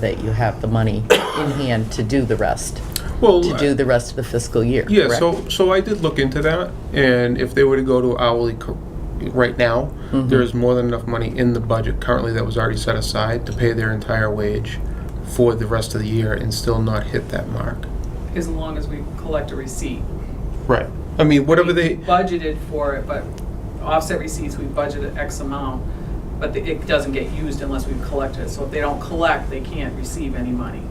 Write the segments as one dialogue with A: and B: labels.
A: that you have the money in hand to do the rest,
B: Well,
A: to do the rest of the fiscal year,
B: Yeah,
A: correct?
B: so, so I did look into that, and if they were to go to hourly co- right now, there is more than enough money in the budget currently that was already set aside to pay their entire wage for the rest of the year and still not hit that mark.
C: as long as we collect a receipt.
B: Right. I mean, whatever
C: We
B: they,
C: Budgeted for it, but offset receipts, we budgeted X amount, but the- it doesn't get used unless we collect it. So if they don't collect, they can't receive any money.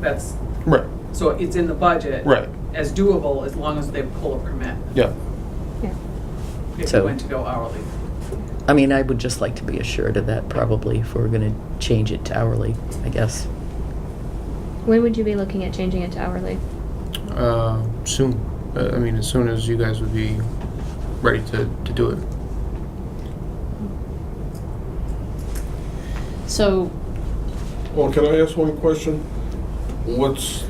C: That's,
B: right,
C: so it's in the budget.
B: right,
C: As doable as long as they pull a permit,
B: yeah.
C: if we
A: So-
C: went to go hourly.
A: I mean, I would just like to be assured of that probably if we're going to change it to hourly, I guess.
D: When would you be looking at changing it to hourly?
B: Uh, Soon, Uh, I mean, as soon as you guys would be ready to, to do it.
E: So,
F: Well, can I ask one question? What's,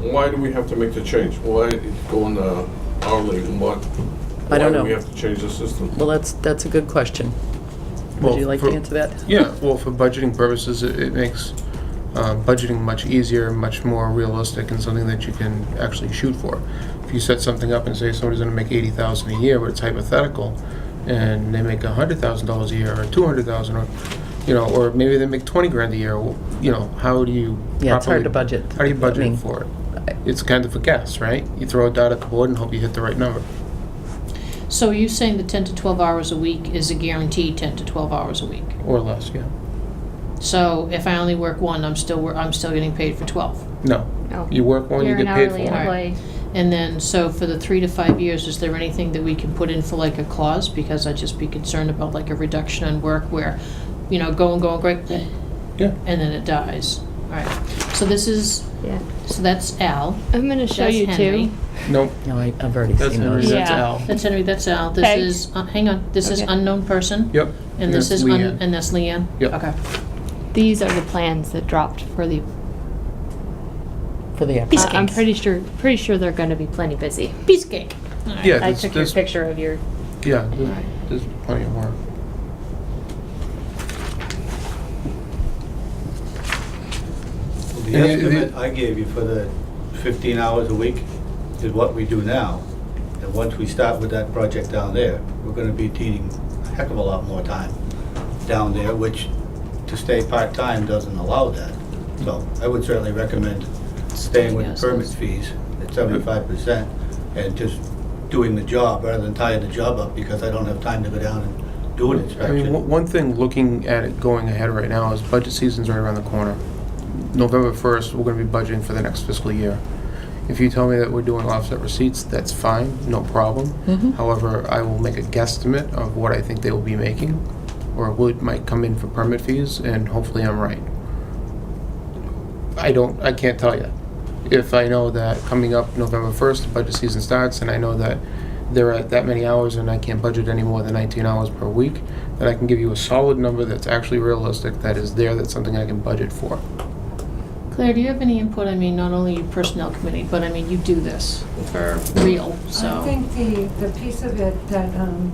F: why do we have to make the change? Why go in the uh, hourly and what?
A: I don't
F: Why do we
A: know.
F: have to change the system?
A: Well, that's, that's a good question.
B: Well,
A: Would you like
B: for-
A: to answer that?
B: Yeah, well, for budgeting purposes, it, it makes uh, budgeting much easier, much more realistic, and something that you can actually shoot for. If you set something up and say somebody's going to make eighty thousand a year, but it's hypothetical, and they make hundred thousand dollars a year, or two hundred thousand, or you know, or maybe they make twenty grand a year. Well, you know, how do you?
A: Yeah, it's hard
B: properly-
A: to budget.
B: How do you
A: I
B: budget
A: mean,
B: for it?
A: I-
B: It's kind of a guess, right? You throw a dot at the board and hope you hit the right number.
E: so are you saying the 10 to 12 hours a week is a guaranteed 10 to 12 hours a week?
B: Or less, yeah.
E: So if I only work one, I'm still, wor- I'm still getting paid for 12?
B: No.
D: No.
B: You work one, you
D: Oh. You're an
B: get paid for
D: hourly
B: one.
D: employee.
E: And then, so for the three to five years, is there anything that we can put in for like a clause? Because I'd just be concerned about like a reduction in work where, you know, go and go and great, and
B: Yeah.
E: then it dies. All right, so this is,
D: Yeah.
E: so that's Al,
D: I'm gonna show
E: that's
D: you
E: Henry.
D: two.
B: Nope.
A: No, I- I've already
B: That's
A: seen
B: Henry.
A: those.
D: Yeah.
B: That's Al.
E: That's Henry, that's Al,
D: Peg.
E: this is, uh, hang on, this is
D: Okay.
E: unknown person?
B: Yep.
E: And this
B: that's
E: is, un-
B: Leanne.
E: and that's Leanne?
B: Yep.
E: Okay.
D: These are the plans that dropped for the.
A: For the
D: I-
A: applicants.
D: I'm pretty sure. Pretty sure they're gonna be plenty busy.
E: Piece of cake.
B: Yeah,
D: I
B: there's,
D: took your
B: there's-
D: picture of your.
B: Yeah, there's, there's plenty of work.
G: Well,
B: And the-
G: The
B: the-
G: estimate I gave you for the 15 hours a week is what we do now. And once we start with that project down there, we're gonna be needing a heck of a lot more time down there, which to stay part-time doesn't allow that. So I would certainly recommend staying with the permit fees at 75% and just doing the job rather than tying the job up because I don't have time to go down and do an
B: I mean, one
G: inspection.
B: one thing, looking at it going ahead right now, is budget season's right around the corner. November 1st, we're gonna be budgeting for the next fiscal year. If you tell me that we're doing offset receipts, that's fine, no problem. However, I will make a guesstimate of what I think they will be making, or what might come in for permit fees, and hopefully I'm right. I don't, I can't tell you. If I know that coming up November 1st, the budget season starts, and I know that there are that many hours and I can't budget any more than 19 hours per week, then I can give you a solid number that's actually realistic, that is there, that's something I can budget for.
E: Claire, do you have any input? I mean, not only your personnel committee, but I mean, you do this for real, so.
H: I think the, the piece of it that, um,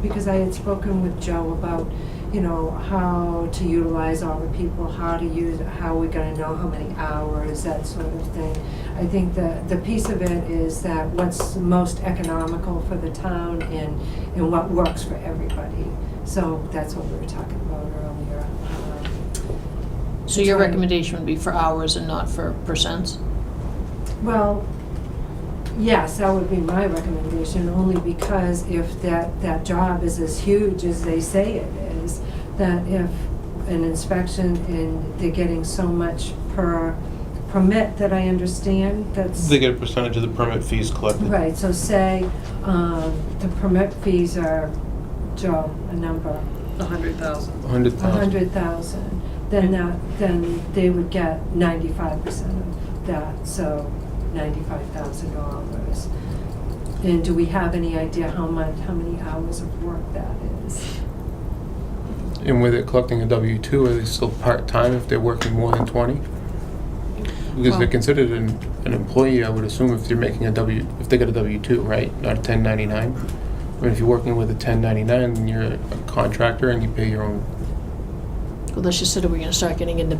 H: because I had spoken with Joe about, you know, how to utilize all the people, how to use, how we're gonna know how many hours, that sort of thing. I think the, the piece of it is that what's most economical for the town and, and what works for everybody. So that's what we were talking about earlier. Um,
E: So your
H: That's right.
E: recommendation would be for hours and not for percents?
H: Well, yes, that would be my recommendation, only because if that, that job is as huge as they say it is, that if an inspection and they're getting so much per permit that I understand, that's.
B: get a percentage of the permit fees collected.
H: Right, so say, um, the permit fees are, Joe, a number,
C: The hundred thousand.
B: 100,000.
H: a hundred thousand, then that, then they would get ninety-five percent of that, so ninety-five thousand dollars. And do we have any idea how much, how many hours of work that is?
B: And with it collecting a W-2, are they still part-time if they're working more than 20? Because they're
E: Well-
B: considered an, an employee, I would assume, if they're making a W, if they got a W-2, right? Not a 1099? I mean, if you're working with a 1099, then you're a contractor and you pay your own
E: Well, let's just say that we're gonna start getting into